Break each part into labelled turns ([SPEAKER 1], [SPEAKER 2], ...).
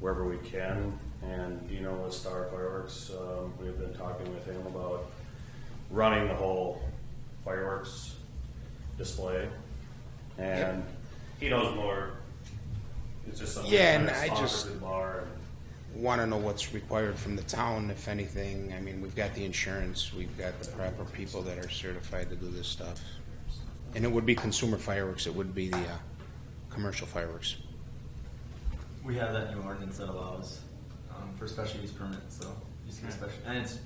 [SPEAKER 1] wherever we can. And you know, with Star Fireworks, um, we've been talking with him about running the whole fireworks display. And he knows more. It's just something
[SPEAKER 2] Yeah,
[SPEAKER 1] that's
[SPEAKER 2] and I
[SPEAKER 1] offered
[SPEAKER 2] just-
[SPEAKER 1] to the bar. And,
[SPEAKER 2] want to know what's required from the town, if anything. I mean, we've got the insurance, we've got the proper people that are certified to do this stuff. And it would be consumer fireworks, it would be the uh, commercial fireworks.
[SPEAKER 3] We have that new ordinance that allows um, for special use permits, so you see special, and it's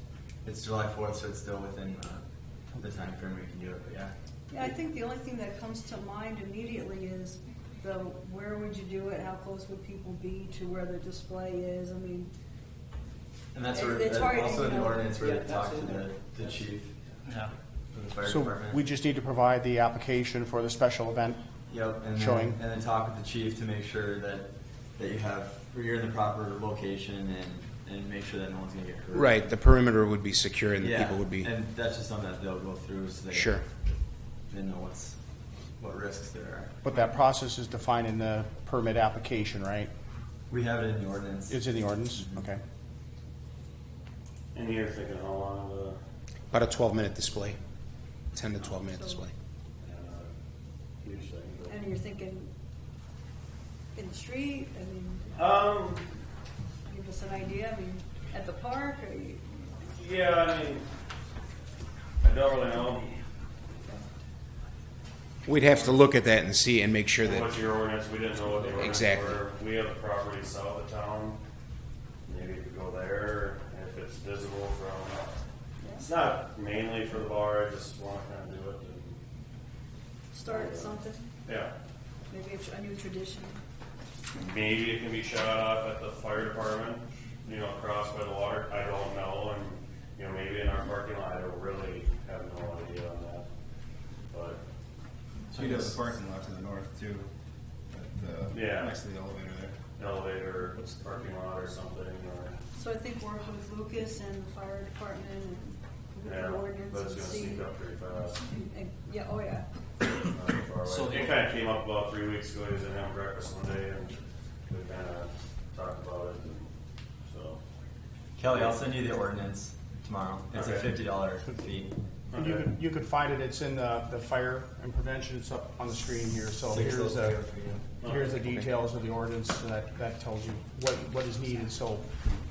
[SPEAKER 3] it's July fourth, so it's still within uh, the time frame we can do it. But yeah,
[SPEAKER 4] Yeah, I think the only thing that comes to mind immediately is the, where would you do it? How close would people be to where the display is? I mean,
[SPEAKER 3] and that's
[SPEAKER 4] It-
[SPEAKER 3] where
[SPEAKER 4] it's
[SPEAKER 3] that's
[SPEAKER 4] hard to
[SPEAKER 3] also in the
[SPEAKER 4] know.
[SPEAKER 3] ordinance where
[SPEAKER 4] Yeah,
[SPEAKER 3] they talk to the,
[SPEAKER 4] absolutely.
[SPEAKER 3] the chief
[SPEAKER 5] Yeah.
[SPEAKER 3] of the fire
[SPEAKER 6] So
[SPEAKER 3] department.
[SPEAKER 6] we just need to provide the application for the special event.
[SPEAKER 3] Yep, and
[SPEAKER 6] Showing.
[SPEAKER 3] then, and then talk with the chief to make sure that that you have you're in the proper location and and make sure that no one's gonna get hurt.
[SPEAKER 2] Right, the perimeter would be secure and the
[SPEAKER 3] yeah,
[SPEAKER 2] people would be,
[SPEAKER 3] and that's just something that they'll go through so they
[SPEAKER 2] Sure.
[SPEAKER 3] they know what's what risks there are.
[SPEAKER 6] But that process is defined in the permit application, right?
[SPEAKER 3] We have it in the ordinance.
[SPEAKER 6] It's in the ordinance,
[SPEAKER 1] Mm-hmm.
[SPEAKER 6] okay.
[SPEAKER 1] and you're thinking how long of a
[SPEAKER 2] about a twelve minute display, ten to twelve minute
[SPEAKER 4] So-
[SPEAKER 2] display.
[SPEAKER 1] uh, huge thing. but-
[SPEAKER 4] and you're thinking in the street, I mean,
[SPEAKER 1] Um,
[SPEAKER 4] give us an idea, I mean, at the park, or you,
[SPEAKER 1] yeah, I mean, I don't really know
[SPEAKER 2] We'd have to look at that and see and make sure that,
[SPEAKER 1] what's your ordinance. We didn't know what the ordinance
[SPEAKER 2] Exactly.
[SPEAKER 1] were. We have property south of town. Maybe you could go there if it's visible from, it's not mainly for the bar. I just want to kind of do it. And,
[SPEAKER 4] start something,
[SPEAKER 1] yeah.
[SPEAKER 4] maybe a tr- a new tradition.
[SPEAKER 1] Maybe it can be shot off at the fire department, you know, across by the water. I don't know, and you know, maybe in our parking lot. I don't really have no idea on that. But
[SPEAKER 7] So you have a parking lot to the north too, at the,
[SPEAKER 1] Yeah.
[SPEAKER 7] next to the elevator there.
[SPEAKER 1] elevator, parking lot, or something, or
[SPEAKER 4] So I think work with Lucas and the fire department and look at
[SPEAKER 1] yeah,
[SPEAKER 4] the
[SPEAKER 1] but
[SPEAKER 4] ordinance
[SPEAKER 1] it's
[SPEAKER 4] and
[SPEAKER 1] gonna
[SPEAKER 4] see.
[SPEAKER 1] sneak up pretty fast.
[SPEAKER 4] and- Yeah, oh yeah,
[SPEAKER 1] So it kind of came up about three weeks ago. He was in having breakfast one day, and we kind of talked about it. And so
[SPEAKER 3] Kelly, I'll send you the ordinance tomorrow. It's a
[SPEAKER 1] Okay.
[SPEAKER 3] fifty dollar fee.
[SPEAKER 6] And you
[SPEAKER 1] Okay.
[SPEAKER 6] could, you could find it, it's in the, the fire and prevention, it's up on the screen here, so
[SPEAKER 3] Six
[SPEAKER 6] here's
[SPEAKER 3] those
[SPEAKER 6] the,
[SPEAKER 3] go for you.
[SPEAKER 6] here's the details of the ordinance that, that tells you what, what is needed, so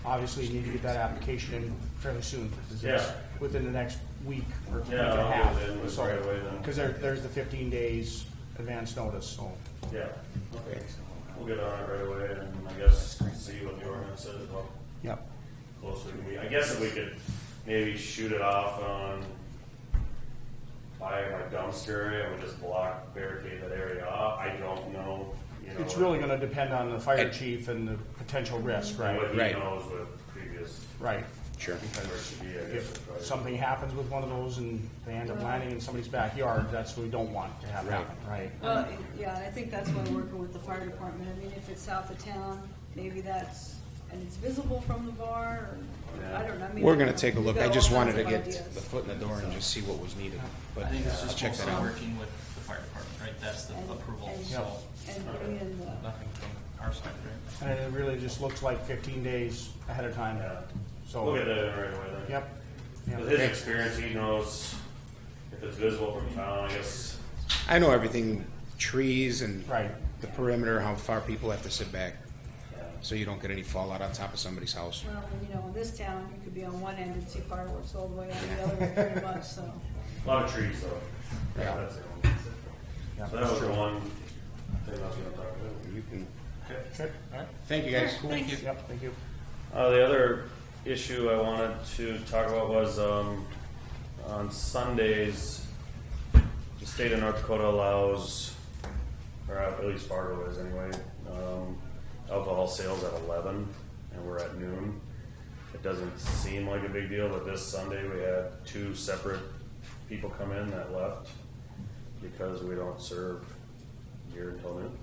[SPEAKER 6] obviously you need to get that application in fairly soon. 'cause it's
[SPEAKER 1] Yeah.
[SPEAKER 6] Within the next week or week and
[SPEAKER 1] Yeah,
[SPEAKER 6] a
[SPEAKER 1] I'll
[SPEAKER 6] half.
[SPEAKER 1] get it in
[SPEAKER 6] So-
[SPEAKER 1] right away then.
[SPEAKER 6] Cause there, there's the fifteen days advance notice, so.
[SPEAKER 1] yeah, okay, we'll get on it right away, and I guess see what the ordinance says about
[SPEAKER 6] Yep.
[SPEAKER 1] closer to me. I guess if we could maybe shoot it off on by my dumpster area and we just block barricade that area off. I don't know. You know
[SPEAKER 6] It's really gonna depend on the fire chief and the potential risk,
[SPEAKER 1] what
[SPEAKER 6] right?
[SPEAKER 1] he
[SPEAKER 2] Right.
[SPEAKER 1] knows with previous
[SPEAKER 6] Right.
[SPEAKER 2] sure.
[SPEAKER 1] where it should be. I guess.
[SPEAKER 6] If
[SPEAKER 1] is probably-
[SPEAKER 6] something happens with one of those and they end up landing in somebody's backyard, that's what we don't want to have happen, right?
[SPEAKER 4] well, yeah, I think that's why working with the fire department, I mean, if it's south of town, maybe that's, and it's visible from the bar, or, I don't know, I mean.
[SPEAKER 2] We're gonna take a
[SPEAKER 4] we've
[SPEAKER 2] look,
[SPEAKER 4] got
[SPEAKER 2] I
[SPEAKER 4] all
[SPEAKER 2] just
[SPEAKER 4] kinds
[SPEAKER 2] wanted to
[SPEAKER 4] of
[SPEAKER 2] get
[SPEAKER 4] ideas.
[SPEAKER 2] the foot in the door and just see what was needed, but
[SPEAKER 5] I think it's
[SPEAKER 2] I'll
[SPEAKER 5] just
[SPEAKER 2] check that
[SPEAKER 5] mostly
[SPEAKER 2] out.
[SPEAKER 5] working with the fire department, right? That's the
[SPEAKER 4] And-
[SPEAKER 5] approval,
[SPEAKER 4] and-
[SPEAKER 5] so
[SPEAKER 4] And bring in the,
[SPEAKER 5] nothing from our side, right?
[SPEAKER 6] And it really just looks like fifteen days ahead of time,
[SPEAKER 1] Yeah. We'll get
[SPEAKER 6] so,
[SPEAKER 1] that in right away then.
[SPEAKER 6] yep.
[SPEAKER 1] With
[SPEAKER 6] yep.
[SPEAKER 1] his experience, he knows if it's visible from town, I guess.
[SPEAKER 2] I know everything, trees and
[SPEAKER 6] Right.
[SPEAKER 2] the perimeter, how far people have to sit back, so you don't get any fallout on top of somebody's house.
[SPEAKER 4] well, and, you know, in this town, you could be on one end and see fireworks all the way on the other end pretty much, so.
[SPEAKER 1] A lot of trees though.
[SPEAKER 6] Yeah.
[SPEAKER 1] That's the only thing.
[SPEAKER 6] Yeah,
[SPEAKER 1] So that was
[SPEAKER 6] sure.
[SPEAKER 1] the one thing I was gonna talk about.
[SPEAKER 2] You can,
[SPEAKER 6] Okay, all right.
[SPEAKER 2] thank you guys.
[SPEAKER 4] Thank you.
[SPEAKER 6] Yep, thank you.
[SPEAKER 1] Uh, the other issue I wanted to talk about was um, on Sundays, the state of North Dakota allows, or at least Fargo is anyway, um, alcohol sales at 11, and we're at noon. It doesn't seem like a big deal, but this Sunday we had two separate people come in that left because we don't serve beer until noon,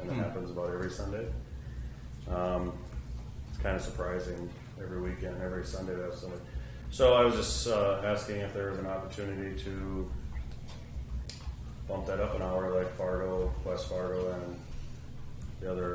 [SPEAKER 1] and it happens about every Sunday. Um, it's kind of surprising every weekend, every Sunday to have somebody. So I was just uh, asking if there was an opportunity to bump that up an hour, like Fargo, West Fargo, and the other